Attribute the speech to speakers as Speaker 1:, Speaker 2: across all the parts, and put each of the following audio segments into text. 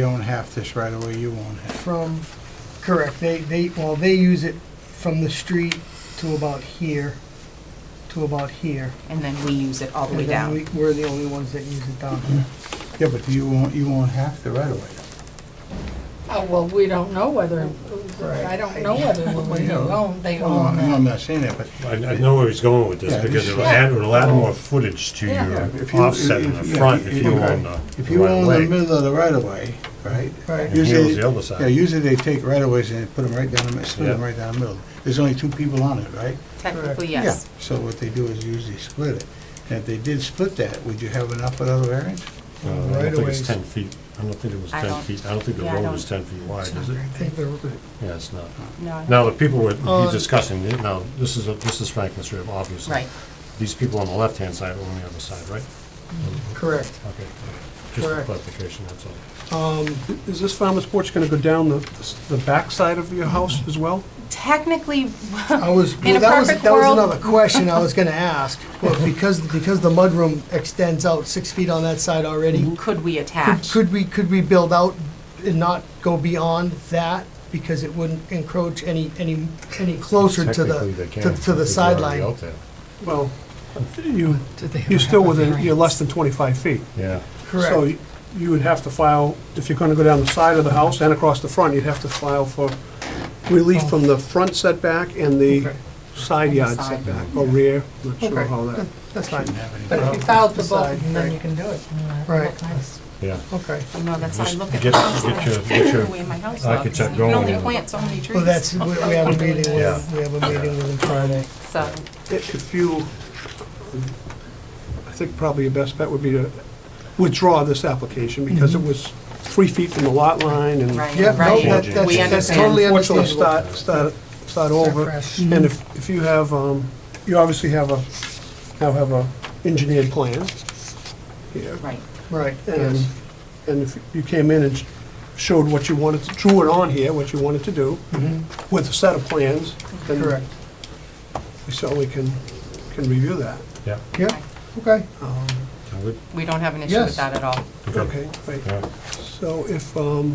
Speaker 1: You own half this right away, you own half.
Speaker 2: from, correct, they, they, well, they use it from the street to about here, to about here.
Speaker 3: and then we use it all the way
Speaker 2: And then
Speaker 3: down.
Speaker 2: we- We're the only ones that use it down here.
Speaker 1: Yeah, but you own, you own half the right away.
Speaker 4: Oh, well, we don't know whether, I don't know whether we
Speaker 1: Yeah.
Speaker 4: own, they
Speaker 1: Well,
Speaker 4: own
Speaker 1: I'm
Speaker 4: that.
Speaker 1: not saying that, but
Speaker 5: I, I know where he's going with
Speaker 1: Yeah,
Speaker 5: this, because it'll
Speaker 4: yeah.
Speaker 5: add, it'll add more footage to
Speaker 4: Yeah.
Speaker 1: Yeah, if
Speaker 5: your
Speaker 1: you-
Speaker 5: offset in
Speaker 1: if-
Speaker 5: the
Speaker 1: yeah,
Speaker 5: front if you
Speaker 1: okay.
Speaker 5: own the
Speaker 1: if
Speaker 5: the
Speaker 1: you
Speaker 5: right
Speaker 1: own
Speaker 5: way.
Speaker 1: the middle of the right of way, right?
Speaker 2: Right.
Speaker 5: And
Speaker 1: usually-
Speaker 5: here's the other
Speaker 1: Yeah,
Speaker 5: side.
Speaker 1: usually they take right of ways and they put them right down, the mi- split them
Speaker 5: Yeah.
Speaker 1: right down the middle. There's only two people on it, right?
Speaker 3: Technically,
Speaker 1: Yeah.
Speaker 3: yes.
Speaker 1: So what they do is usually split it. And if they did split that, would you have enough with other variance?
Speaker 5: Uh, I don't think it's
Speaker 2: Right-of-ways.
Speaker 5: ten feet, I don't think it was
Speaker 3: I
Speaker 5: ten
Speaker 3: don't-
Speaker 5: feet, I don't think the
Speaker 3: yeah, I
Speaker 5: road
Speaker 3: don't-
Speaker 5: was ten feet wide,
Speaker 3: It's not
Speaker 5: is it?
Speaker 3: very
Speaker 2: I think they're-
Speaker 5: Yeah, it's not.
Speaker 3: big. No, I-
Speaker 5: Now, the people with, he's
Speaker 2: Uh,
Speaker 5: discussing, it now, this is, a- this is Franklin Street, obviously.
Speaker 3: right.
Speaker 5: These people on the left-hand side own the other side, right?
Speaker 2: Correct.
Speaker 5: Okay, just for
Speaker 2: Correct.
Speaker 5: clarification, that's all.
Speaker 6: Is this farmer's porch going to go down the, the backside of your house as well?
Speaker 3: Technically,
Speaker 2: I was,
Speaker 3: In
Speaker 2: well,
Speaker 3: a
Speaker 2: that was,
Speaker 3: perfect
Speaker 2: that was
Speaker 3: world-
Speaker 2: another question I was gonna ask. But because, because the mudroom extends out six feet on that side already,
Speaker 3: could we
Speaker 2: could,
Speaker 3: attach?
Speaker 2: could we, could we build out and not go beyond that? Because it wouldn't encroach any, any, any closer to
Speaker 5: Technically,
Speaker 2: the,
Speaker 5: they can,
Speaker 2: to- to the
Speaker 5: because they're already
Speaker 2: sideline.
Speaker 5: out there.
Speaker 6: Well, you, you're still within, you're less than 25 feet.
Speaker 5: Yeah.
Speaker 6: So
Speaker 2: Correct,
Speaker 6: you- you would have to file, if you're going to go down the side of the house and across the front, you'd have to file for relief from the front setback and the side yard
Speaker 3: Side.
Speaker 6: setback, or rear, not sure
Speaker 2: Okay.
Speaker 6: how that.
Speaker 2: that's fine,
Speaker 1: Didn't have any
Speaker 4: But if you
Speaker 1: problem.
Speaker 4: filed for both of them, then you can do it.
Speaker 2: Right.
Speaker 5: Yeah.
Speaker 2: okay.
Speaker 3: No, that's how I look at
Speaker 5: Get-
Speaker 3: the house.
Speaker 5: get your-
Speaker 3: That's
Speaker 5: get your
Speaker 3: the way my house looks. You
Speaker 5: architect
Speaker 3: can only
Speaker 5: going.
Speaker 3: plant so many trees.
Speaker 2: Well, that's, we we have a meeting
Speaker 5: Yeah.
Speaker 2: with, we have a meeting with them Friday.
Speaker 3: So,
Speaker 6: I- If you, I think probably your best bet would be to withdraw this application, because it was three feet from the lot line and.
Speaker 3: right,
Speaker 2: Yeah, no, that-
Speaker 3: right.
Speaker 5: Changing.
Speaker 2: that's,
Speaker 3: We
Speaker 2: that's totally
Speaker 3: understand.
Speaker 6: Unfortunately,
Speaker 2: understandable.
Speaker 6: start, start, start over. And if, if you have, um, you obviously have a, now have a engineered plan here.
Speaker 3: Right.
Speaker 2: Right,
Speaker 6: And,
Speaker 2: yes.
Speaker 6: and if you came in and showed what you wanted, to drew it on here, what you wanted to do
Speaker 2: Mhm.
Speaker 6: with a set of plans, then
Speaker 2: Correct,
Speaker 6: we certainly can, can review that.
Speaker 5: Yeah.
Speaker 2: yeah, okay.
Speaker 6: Um,
Speaker 5: Sound good?
Speaker 3: We don't have an issue
Speaker 2: Yes.
Speaker 3: with that at all.
Speaker 6: Okay, great.
Speaker 5: Yeah.
Speaker 6: So if, um,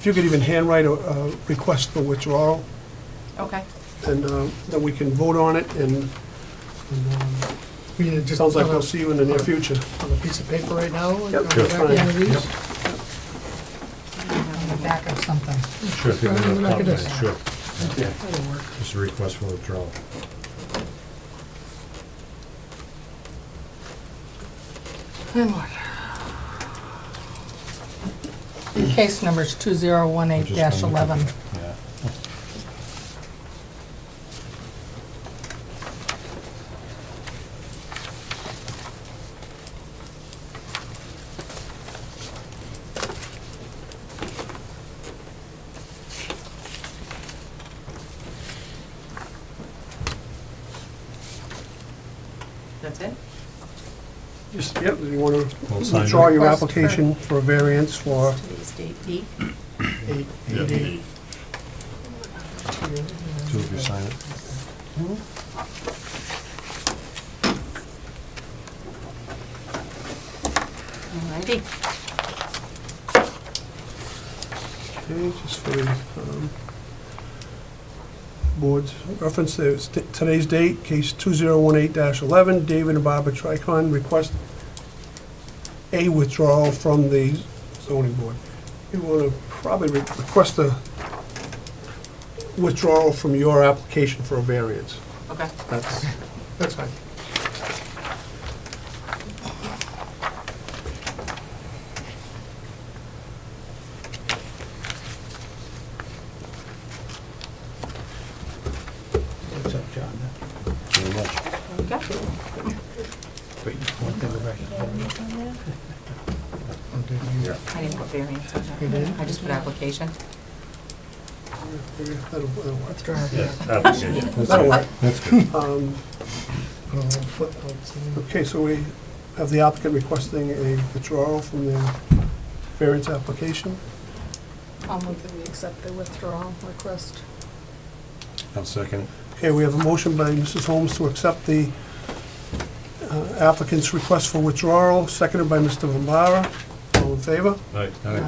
Speaker 6: if you could even handwrite a, a request for withdrawal,
Speaker 3: Okay.
Speaker 6: then, uh, then we can vote on it, and
Speaker 2: We need to just
Speaker 6: sounds like
Speaker 2: have a-
Speaker 6: we'll see you in the near future.
Speaker 2: on a piece of paper right now? on the
Speaker 6: Yep.
Speaker 2: back
Speaker 5: Sure.
Speaker 2: end of these?
Speaker 5: Yep.
Speaker 4: Back of something.
Speaker 5: Sure, if you
Speaker 2: Right,
Speaker 5: want
Speaker 2: look at
Speaker 5: to talk,
Speaker 2: this.
Speaker 5: sure.
Speaker 1: Yeah.
Speaker 5: Just a request for withdrawal.
Speaker 4: Case number's two zero one eight dash eleven.
Speaker 5: Yeah.
Speaker 3: That's it?
Speaker 6: Just, yep, you want to
Speaker 5: Well, sign
Speaker 6: withdraw
Speaker 5: it.
Speaker 6: your
Speaker 4: Request for-
Speaker 6: application for a variance for,
Speaker 3: Today's date, eight.
Speaker 2: Eight,
Speaker 5: Yeah.
Speaker 2: eight, eight.
Speaker 5: Two of you sign it.
Speaker 3: Alrighty.
Speaker 6: okay, just for the um, board's reference, there's t- today's date, case 2018-11, David and Barbara Tricon request a withdrawal from the zoning board. You want to probably re- request a withdrawal from your application for a variance.
Speaker 3: Okay.
Speaker 6: That's
Speaker 2: That's fine.
Speaker 1: What's up, John?
Speaker 5: Very much.
Speaker 3: Okay.
Speaker 1: Wait, one thing go back.
Speaker 3: I didn't put variance on that. I just put application.
Speaker 6: That'll that'll work.
Speaker 5: Yeah, application. That's good. That's good.
Speaker 6: Um,
Speaker 2: Put a little footnotes in there.
Speaker 6: Okay, so we have the applicant requesting a withdrawal from their variance application.
Speaker 4: I'll move that we accept the withdrawal request.
Speaker 5: I'll second it.
Speaker 6: Okay, we have a motion by Mrs. Holmes to accept the uh, applicant's request for withdrawal, seconded by Mr. Bombara. All in in favor?
Speaker 5: Aye.